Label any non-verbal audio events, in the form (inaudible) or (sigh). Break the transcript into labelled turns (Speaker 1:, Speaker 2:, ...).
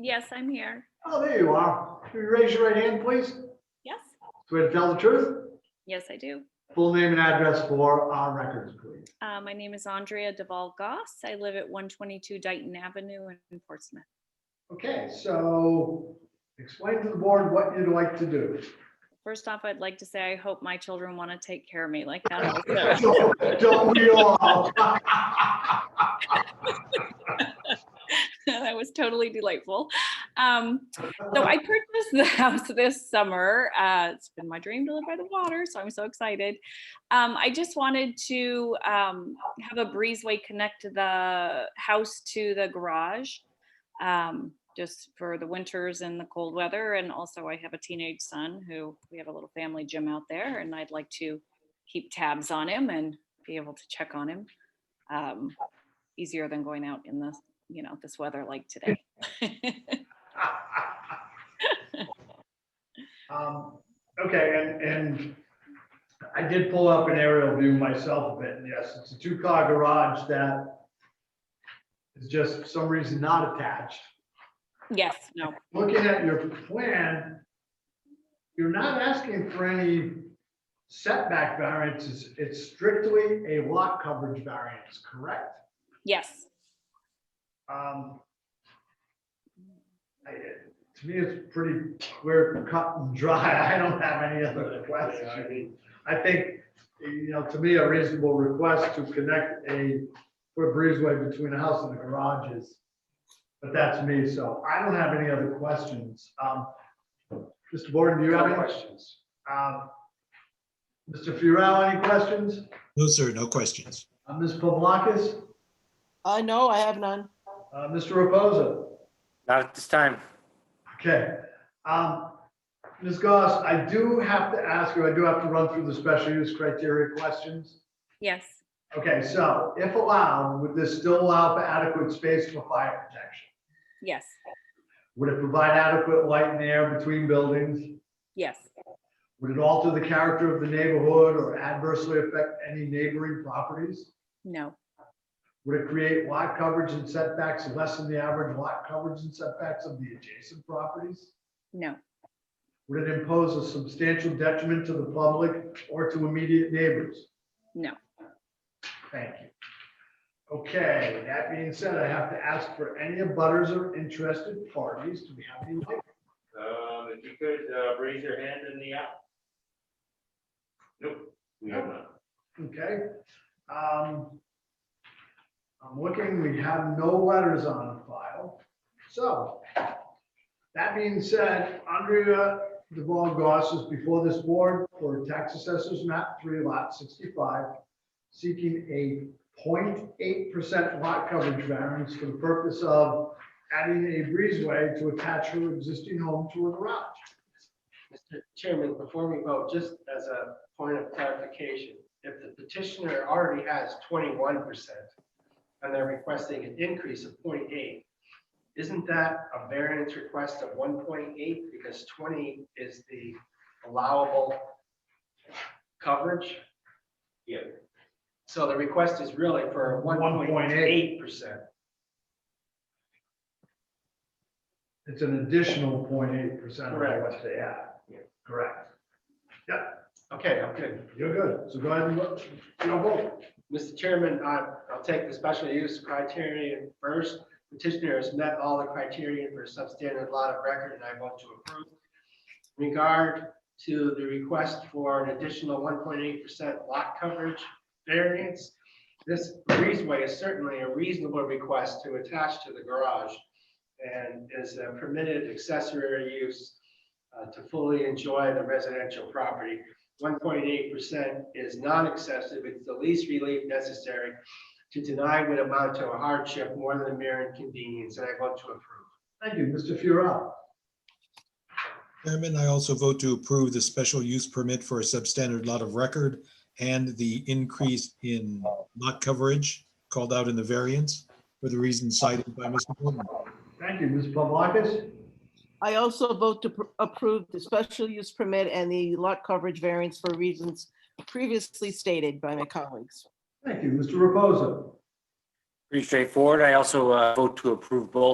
Speaker 1: Yes, I'm here.
Speaker 2: Oh, there you are. Will you raise your right hand, please?
Speaker 1: Yes.
Speaker 2: Swear to tell the truth,
Speaker 1: Yes, I do.
Speaker 2: full name and address for our records, please.
Speaker 1: Uh, my name is Andrea Deval Goss. I live at 122 Dighton Avenue in Portsmouth.
Speaker 2: Okay, so explain to the board what you'd like to do.
Speaker 1: First off, I'd like to say I hope my children want to take care of me like
Speaker 2: (laughs)
Speaker 1: that.
Speaker 2: Don't don't we all?
Speaker 1: (laughs) that was totally delightful. Um, so I purchased the house this summer. Uh, it's been my dream to live by the water, so I'm so excited. Um, I just wanted to um, have a breezeway connect the house to the garage, um, just for the winters and the cold weather. And also, I have a teenage son who we have a little family gym out there, and I'd like to keep tabs on him and be able to check on him. Um, easier than going out in the you know, this weather like today.
Speaker 2: Um, Okay, and, and I did pull up an aerial view myself of it, and yes, it's a two-car garage that is just for some reason not attached.
Speaker 1: Yes, no,
Speaker 2: Looking at your plan, you're not asking for any setback variances, it's strictly a lot coverage variance, correct?
Speaker 1: yes,
Speaker 2: Um, I- To me, it's pretty clear cut and dry. (laughs) I don't have any other questions. I think, you know, to me, a reasonable request to connect a, for a breezeway between a house and a garage is, but that's me, so I don't have any other questions. Um, Mr. Borden, do you have any questions? Um, Mr. Furell, any questions?
Speaker 3: No, sir, no questions.
Speaker 2: Uh, Ms. Pavlakis?
Speaker 4: I know, I have none.
Speaker 2: Uh, Mr. Reposa?
Speaker 5: Not at this time.
Speaker 2: Okay. Um, Ms. Goss, I do have to ask you, I do have to run through the special use criteria questions.
Speaker 1: yes,
Speaker 2: Okay, so if allowed, would this still allow for adequate space for fire protection?
Speaker 1: yes,
Speaker 2: Would it provide adequate light and air between buildings?
Speaker 1: yes,
Speaker 2: Would it alter the character of the neighborhood or adversely affect any neighboring properties?
Speaker 1: no,
Speaker 2: Would it create lot coverage and setbacks less than the average lot coverage and setbacks of the adjacent properties?
Speaker 1: no,
Speaker 2: Would it impose a substantial detriment to the public or to immediate neighbors?
Speaker 1: No.
Speaker 2: Thank you. Okay, that being said, I have to ask for any abutters or interested parties. Do we have any?
Speaker 6: Um, if you could, uh, raise your hand in the app. Nope, we have none.
Speaker 2: Okay. um, I'm looking, we have no letters on file. So that being said, Andrea DeVal Goss is before this board for tax assessors map three lot sixty-five, seeking a 0.8 percent lot coverage variance for the purpose of adding a breezeway to attach her existing home to a garage.
Speaker 7: Mr. Chairman, before we vote, just as a point of clarification, if the petitioner already has twenty-one percent and they're requesting an increase of 0.8, eight, isn't that a variance request of one point eight because twenty is the allowable coverage?
Speaker 6: Yeah.
Speaker 7: So the request is really for one point eight percent.
Speaker 2: It's an additional 0.8 percent of
Speaker 7: Correct.
Speaker 2: what they
Speaker 7: Yeah.
Speaker 2: have. Correct.
Speaker 7: Okay, I'm good.
Speaker 2: You're good, so go ahead and vote. Your vote.
Speaker 7: Mr. Chairman, I- I'll take the special use criterion first. Petitioner has met all the criterion for a substandard lot of record, and I vote to approve. Regard to the request for an additional 1.8% lot coverage variance, this breezeway is certainly a reasonable request to attach to the garage and is a permitted accessory use uh, to fully enjoy the residential property one point eight percent is not excessive, it's the least relief necessary to deny would amount to a hardship more than a mere inconvenience, and I vote to approve.
Speaker 2: Thank you, Mr. Furell.
Speaker 3: Chairman, I also vote to approve the special use permit for a substandard lot of record and the increase in lot coverage called out in the variance for the reasons cited by Mr. Borden.
Speaker 2: Thank you, Ms. Pavlakis.
Speaker 4: I also vote to pr- approve the special use permit and the lot coverage variance for reasons previously stated by my colleagues.
Speaker 2: Thank you, Mr. Reposa.
Speaker 5: Pretty straightforward. I also uh, vote to approve both